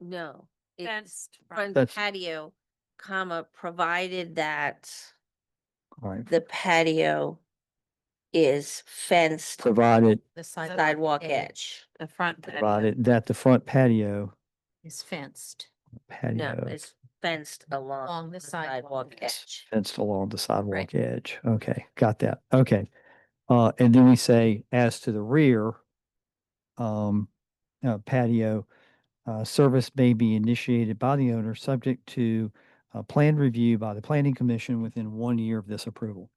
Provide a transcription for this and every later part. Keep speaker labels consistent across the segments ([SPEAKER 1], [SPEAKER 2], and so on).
[SPEAKER 1] No. It's
[SPEAKER 2] fenced
[SPEAKER 1] front
[SPEAKER 3] That's-
[SPEAKER 1] patio, comma, provided that
[SPEAKER 3] All right,
[SPEAKER 1] the patio is fenced
[SPEAKER 3] provided,
[SPEAKER 4] The
[SPEAKER 1] sidewalk edge.
[SPEAKER 2] the front. patio.
[SPEAKER 3] provided that the front patio,
[SPEAKER 4] is fenced.
[SPEAKER 1] No,
[SPEAKER 3] patio
[SPEAKER 1] it's fenced along.
[SPEAKER 4] Along the sidewalk edge.
[SPEAKER 1] edge.
[SPEAKER 3] fenced along the sidewalk edge. Okay, got that. Okay. Uh, and then we say as to the rear, um, uh, patio, uh, service may be initiated by the owner, subject to a planned review by the planning commission within one year of this approval.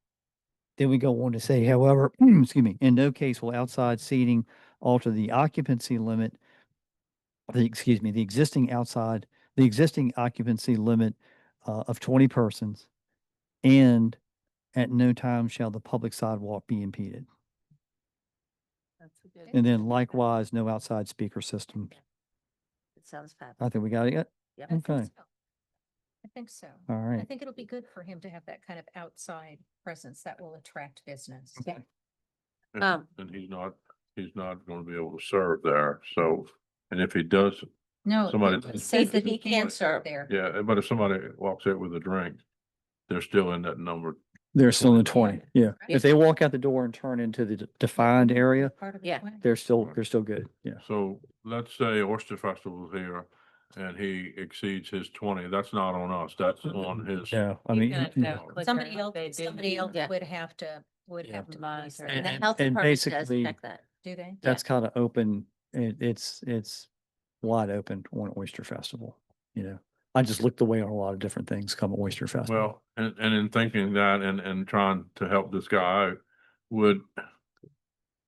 [SPEAKER 3] Then we go on to say, however, excuse me, in no case will outside seating alter the occupancy limit, the, excuse me, the existing outside, the existing occupancy limit uh, of twenty persons. And at no time shall the public sidewalk be impeded.
[SPEAKER 2] That's a good-
[SPEAKER 3] And then likewise, no outside speaker system.
[SPEAKER 1] It sounds fabulous.
[SPEAKER 3] I think we got it.
[SPEAKER 1] Yep.
[SPEAKER 4] I think
[SPEAKER 3] Okay.
[SPEAKER 4] so. I think so.
[SPEAKER 3] All
[SPEAKER 4] I
[SPEAKER 3] right.
[SPEAKER 4] think it'll be good for him to have that kind of outside presence that will attract business.
[SPEAKER 3] Okay.
[SPEAKER 5] And-
[SPEAKER 1] Um,
[SPEAKER 5] And he's not, he's not gonna be able to serve there, so, and if he does,
[SPEAKER 4] No.
[SPEAKER 5] Somebody-
[SPEAKER 4] it Says that he can
[SPEAKER 5] Somebody-
[SPEAKER 4] serve there.
[SPEAKER 5] yeah, eh, but if somebody walks out with a drink, they're still in that number.
[SPEAKER 3] They're still in twenty. Yeah.
[SPEAKER 4] Yeah.
[SPEAKER 3] If they walk out the door and turn into the d- defined area,
[SPEAKER 4] Part of the
[SPEAKER 1] Yeah.
[SPEAKER 4] plan.
[SPEAKER 3] they're still, they're still good. Yeah.
[SPEAKER 5] So let's say Oyster Festival's here and he exceeds his twenty, that's not on us, that's on his.
[SPEAKER 3] Yeah. I
[SPEAKER 2] You
[SPEAKER 3] mean,
[SPEAKER 2] gotta
[SPEAKER 3] yeah.
[SPEAKER 2] know quicker
[SPEAKER 4] Somebody
[SPEAKER 2] if
[SPEAKER 4] else,
[SPEAKER 2] they do
[SPEAKER 4] somebody else
[SPEAKER 1] Yeah.
[SPEAKER 4] would have to, would
[SPEAKER 3] Yeah.
[SPEAKER 4] have to police
[SPEAKER 2] Monitor
[SPEAKER 4] that.
[SPEAKER 2] it.
[SPEAKER 1] And the
[SPEAKER 2] and-
[SPEAKER 1] health
[SPEAKER 3] and
[SPEAKER 1] department does
[SPEAKER 3] basically-
[SPEAKER 1] check that.
[SPEAKER 4] Do they?
[SPEAKER 3] that's kind of open. It, it's, it's wide open on Oyster Festival, you know? I just looked away on a lot of different things come Oyster Festival.
[SPEAKER 5] Well, and, and in thinking that and, and trying to help this guy out, would,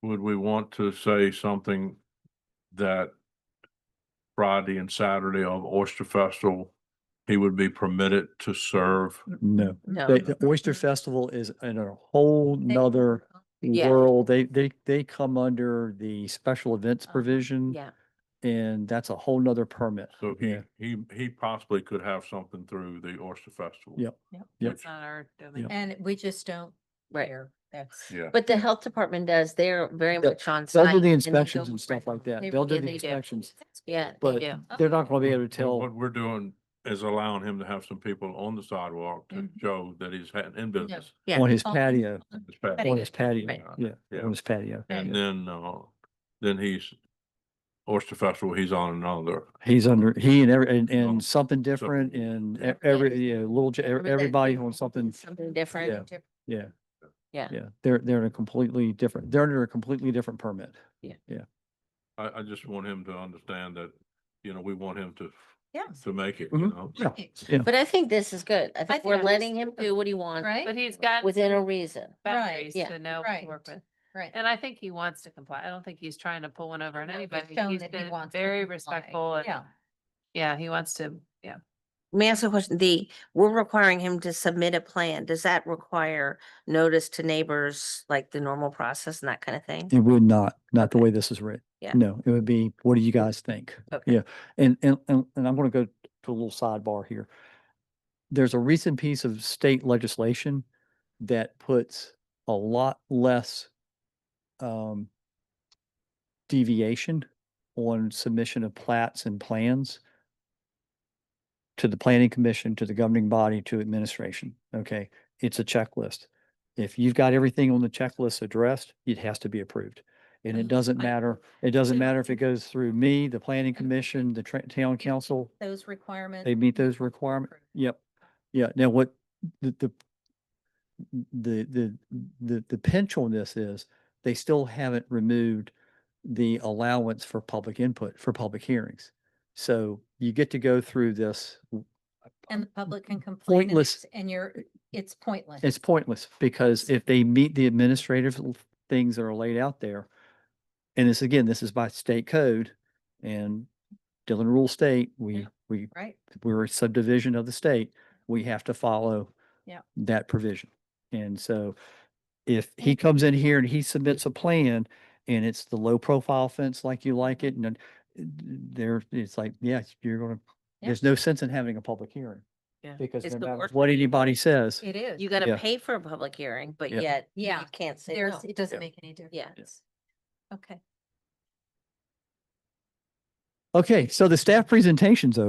[SPEAKER 5] would we want to say something that Friday and Saturday of Oyster Festival, he would be permitted to serve?
[SPEAKER 3] No.
[SPEAKER 1] No,
[SPEAKER 3] The, the Oyster Festival is in a whole
[SPEAKER 4] They-
[SPEAKER 3] nother
[SPEAKER 1] Yeah.
[SPEAKER 3] world. They, they, they come under the special events provision.
[SPEAKER 1] yeah.
[SPEAKER 3] And that's a whole nother permit.
[SPEAKER 5] So he,
[SPEAKER 3] Yeah.
[SPEAKER 5] he, he possibly could have something through the Oyster Festival.
[SPEAKER 3] Yep. Yep.
[SPEAKER 5] Which-
[SPEAKER 2] That's not our domain.
[SPEAKER 4] And we just don't
[SPEAKER 1] Right.
[SPEAKER 4] care. That's.
[SPEAKER 5] Yeah.
[SPEAKER 1] But the health department does, they're very
[SPEAKER 3] Yeah,
[SPEAKER 1] much on site.
[SPEAKER 3] They'll do
[SPEAKER 1] and
[SPEAKER 3] the
[SPEAKER 1] they
[SPEAKER 3] inspections
[SPEAKER 1] go
[SPEAKER 3] and stuff like that.
[SPEAKER 4] They
[SPEAKER 3] They'll do
[SPEAKER 1] really
[SPEAKER 3] the
[SPEAKER 1] do.
[SPEAKER 3] inspections,
[SPEAKER 4] That's
[SPEAKER 1] Yeah,
[SPEAKER 4] good.
[SPEAKER 3] but
[SPEAKER 1] they do.
[SPEAKER 3] they're not going to be able to
[SPEAKER 5] Well,
[SPEAKER 3] tell.
[SPEAKER 5] What we're doing is allowing him to have some people on the sidewalk to
[SPEAKER 4] Mhm.
[SPEAKER 5] show that he's had- in business.
[SPEAKER 1] Yeah.
[SPEAKER 3] On his
[SPEAKER 4] Oh,
[SPEAKER 3] patio,
[SPEAKER 5] It's bad.
[SPEAKER 4] Patio.
[SPEAKER 3] on his patio,
[SPEAKER 5] Right.
[SPEAKER 3] yeah,
[SPEAKER 5] Yeah.
[SPEAKER 3] on his patio.
[SPEAKER 5] And
[SPEAKER 3] yeah.
[SPEAKER 5] then, uh, then he's Oyster Festival, he's on another.
[SPEAKER 3] He's under, he and every, and,
[SPEAKER 5] Oh,
[SPEAKER 3] and something different and e- every, you know, little, j- ev-
[SPEAKER 1] Everything.
[SPEAKER 3] everybody on something,
[SPEAKER 1] Something different.
[SPEAKER 4] Oh, Different.
[SPEAKER 3] yeah.
[SPEAKER 1] Yeah.
[SPEAKER 3] Yeah, they're, they're in a completely different, they're under a completely different permit.
[SPEAKER 5] I, I just want him to understand that, you know, we want him to,
[SPEAKER 4] Yeah.
[SPEAKER 5] to make it, you
[SPEAKER 3] Mhm.
[SPEAKER 5] know?
[SPEAKER 3] Yeah.
[SPEAKER 4] Right.
[SPEAKER 1] But I think this is good. I think
[SPEAKER 4] think
[SPEAKER 1] we're
[SPEAKER 4] this
[SPEAKER 1] letting
[SPEAKER 4] is
[SPEAKER 1] him
[SPEAKER 4] good.
[SPEAKER 1] do what he wants
[SPEAKER 4] Right?
[SPEAKER 2] But he's got
[SPEAKER 1] within a reason.
[SPEAKER 2] boundaries
[SPEAKER 1] yeah,
[SPEAKER 2] to know what
[SPEAKER 4] right.
[SPEAKER 2] to work with.
[SPEAKER 4] Right.
[SPEAKER 2] And I think he wants to comply. I don't think he's trying to pull one over on
[SPEAKER 4] No, he's
[SPEAKER 2] anybody.
[SPEAKER 4] shown
[SPEAKER 2] He's
[SPEAKER 4] that he
[SPEAKER 2] been
[SPEAKER 4] wants to
[SPEAKER 2] very
[SPEAKER 4] comply.
[SPEAKER 2] respectful. and-
[SPEAKER 4] Yeah.
[SPEAKER 2] Yeah, he wants to, yeah.
[SPEAKER 1] May I ask a question? The, we're requiring him to submit a plan. Does that require notice to neighbors, like the normal process and that kind of thing?
[SPEAKER 3] It would not, not the way this is written.
[SPEAKER 1] Yeah.
[SPEAKER 3] No, it would be, what do you guys think?
[SPEAKER 1] Okay.
[SPEAKER 3] Yeah. And, and, and and I'm going to go to a little sidebar here. There's a recent piece of state legislation that puts a lot less um, deviation on submission of plats and plans to the planning commission, to the governing body, to administration. Okay, it's a checklist. If you've got everything on the checklist addressed, it has to be approved. And it
[SPEAKER 4] Mhm.
[SPEAKER 3] doesn't
[SPEAKER 4] I-
[SPEAKER 3] matter, it doesn't
[SPEAKER 4] Yeah.
[SPEAKER 3] matter if it goes through me, the planning commission, the tra- town council,
[SPEAKER 4] Those requirements.
[SPEAKER 3] they meet those requirements.
[SPEAKER 4] Approved.
[SPEAKER 3] Yep. Yeah. Now what the, the, the, the, the, the pinch on this is they still haven't removed the allowance for public input for public hearings. So you get to go through this.
[SPEAKER 4] And the public can complain. and
[SPEAKER 3] pointless-
[SPEAKER 4] it's- And you're, it's pointless.
[SPEAKER 3] It's pointless because if they meet the administrative l- things that are laid out there, and this, again, this is by state code and Dillon Rule State, we,
[SPEAKER 4] Yeah.
[SPEAKER 3] we
[SPEAKER 4] Right?
[SPEAKER 3] we're a subdivision of the state, we have to follow
[SPEAKER 4] Yeah.
[SPEAKER 3] that provision. And so if he comes in here and he submits a plan and it's the low profile fence like you like it and then there, it's like, yes, you're gonna,
[SPEAKER 4] Yeah.
[SPEAKER 3] there's no sense in having a public hearing.
[SPEAKER 2] Yeah.
[SPEAKER 3] Because
[SPEAKER 1] It's
[SPEAKER 3] no
[SPEAKER 1] the
[SPEAKER 3] matter
[SPEAKER 1] worst
[SPEAKER 3] what anybody says,
[SPEAKER 4] It is.
[SPEAKER 1] You
[SPEAKER 3] Yeah.
[SPEAKER 1] gotta pay for a public hearing, but
[SPEAKER 3] Yeah.
[SPEAKER 1] yet you
[SPEAKER 4] Yeah.
[SPEAKER 1] can't say no.
[SPEAKER 4] There's, it doesn't
[SPEAKER 3] Yeah.
[SPEAKER 4] make any difference. Okay.
[SPEAKER 3] Okay, so the staff presentation's over.